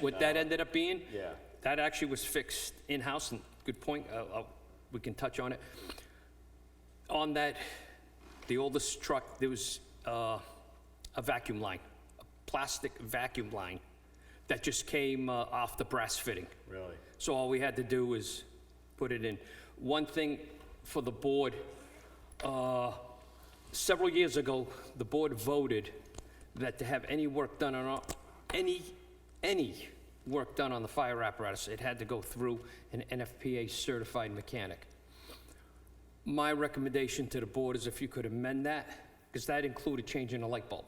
what that ended up being. Yeah. That actually was fixed in-house, and good point, I'll- I'll- we can touch on it. On that, the oldest truck, there was uh, a vacuum line, a plastic vacuum line that just came uh, off the brass fitting. Really? So all we had to do was put it in. One thing for the board, uh, several years ago, the board voted that to have any work done on, our- any, any work done on the fire apparatus, it had to go through an NFPA-certified mechanic. My recommendation to the board is if you could amend that, because that included changing a light bulb,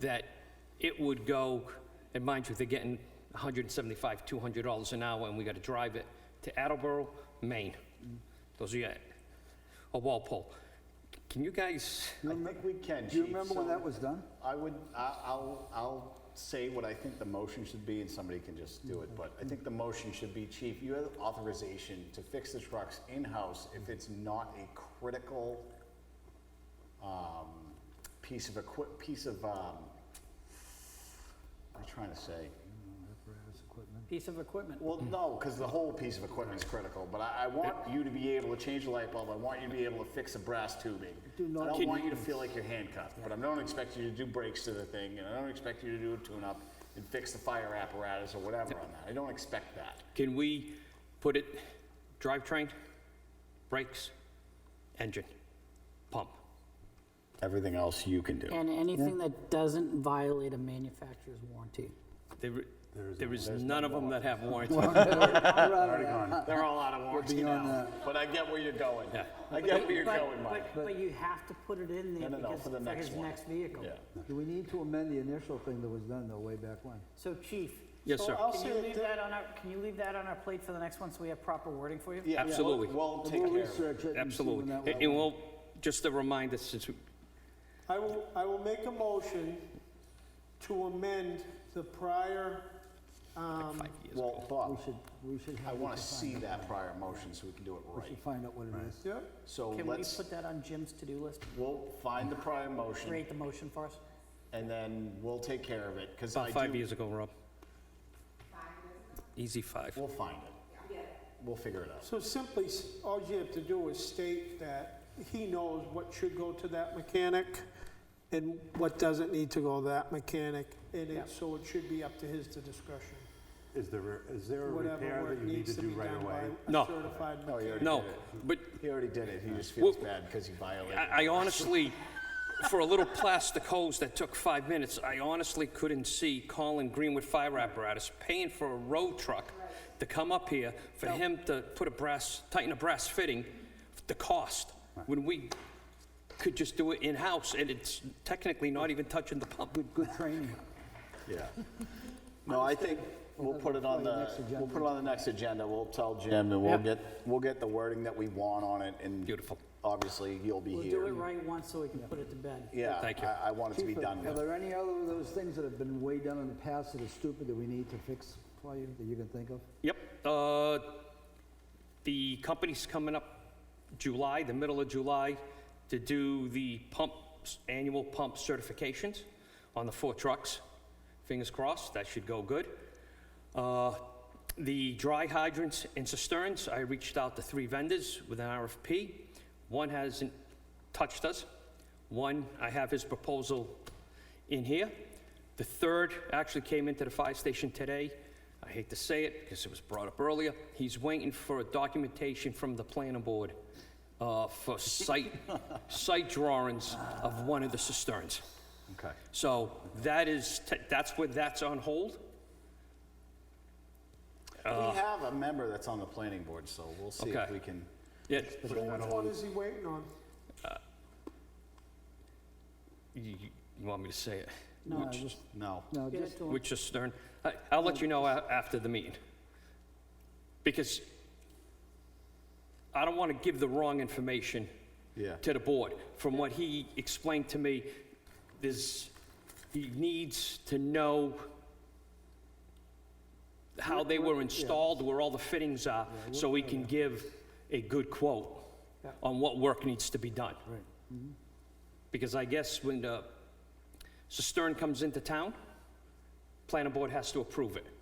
that it would go, and mind you, they're getting 175, 200 dollars an hour, and we got to drive it to Attleboro, Maine. Those are your, a Walpole. Can you guys, I think we can, Do you Chief. remember when So that was done? I would, I- I'll, I'll say what I think the motion should be, and somebody can just do it, but I think the motion should be, Chief, you have authorization to fix the trucks in-house if it's not a critical um, piece of equip, piece of, um, what am I trying to say? piece of equipment. Well, no, because the whole piece of equipment is critical, but I, I want you to be able to change the light bulb, I want you to be able to fix the brass tubing. Do not- I don't want you to feel like you're handcuffed, but I don't expect you to do brakes to the thing, and I don't expect you to do a tune-up and fix the fire apparatus or whatever on that, I don't expect that. can we put it, drivetrain, brakes, engine, pump? Everything else you can do. And anything that doesn't violate a manufacturer's warranty. There, there is none of them that have warranty. They're all out of warranty beyond now, that. but I get where you're going. I get where you're But- going, Mike. But, but you have to put it in there No, no, no, because for the for next his one. next vehicle. Yeah. Do we need to amend the initial thing that was done though, way back when? So chief. Yes, so sir. I'll Can you say leave that- that on our, can you leave that on our plate for the next one so we have proper wording for you? Yeah, we'll- Absolutely. We'll take We'll care of it. research it and see when Absolutely. that And- was. And we'll, just a reminder, since, we- I will, I will make a motion to amend the prior, um, Well, We Bob, should, we should I have. wanna we should see find out. that prior motion so we can do it We should right. find out what it is. yeah, So Can we let's, put that on Jim's to-do list? we'll find the prior motion. Create the motion for us? and then we'll take care of it, because I about five do, years ago, Rob. Easy five. we'll find it. We'll figure it out. so simply, s- all you have to do is state that he knows what should go to that mechanic and what doesn't need to go to that mechanic, and it, so it should be up to his to discretion. Is there, a- is there a Whatever repair work that you need needs to to do be right done by away? Oh, a No. certified No, he mechanic. already No, did it. but He already did it, he just feels Well- bad because he violated. it. I I honestly, for a little plastic hose that took five minutes, I honestly couldn't see Colin Greenwood Fire Apparatus paying for a road truck to come up here for him to put a brass, tighten a brass fitting, the cost, when we could just do it in-house, and it's technically not even touching the pump. Good, good training. Yeah. No, I think we'll put it on the, we'll put it on the next agenda, we'll tell Jim, and we'll Yeah. get, we'll get the wording that we want on it, and. Beautiful. Obviously, you'll be We'll do it here. right once so we can put it to bed. Yeah, Thank you. I, I want it to be Chief, done Are now. there any other of those things that have been way done in the past that are stupid that we need to fix for you, that you can think of? Yep, uh, the company's coming up July, the middle of July, to do the pumps, annual pump certifications on the four trucks. Fingers crossed, that should go good. Uh, The dry hydrants and cisterns, I reached out to three vendors with an RFP. One hasn't touched us. One, I have his proposal in here. The third actually came into the fire station today. I hate to say it because it was brought up earlier. He's waiting for documentation from the planning board uh, for site, site drawings of one of the cisterns. Okay. So that is, te- that's where that's on hold. We have a member that's on the planning board, so we'll see if Uh, Okay. we can. Yeah, So which one is he waiting on? you, you want me to say it? No, just, No. no, Get just, it to him. Which is Stern. I, I'll let you know a- after the meeting. Because I don't want to give the wrong information Yeah. to the board. From what he explained to me, there's, he needs to know how they were installed, where all the fittings are, so we can give a good quote on what work needs to be done. Because I guess when the cistern comes into town, planning board has to approve it.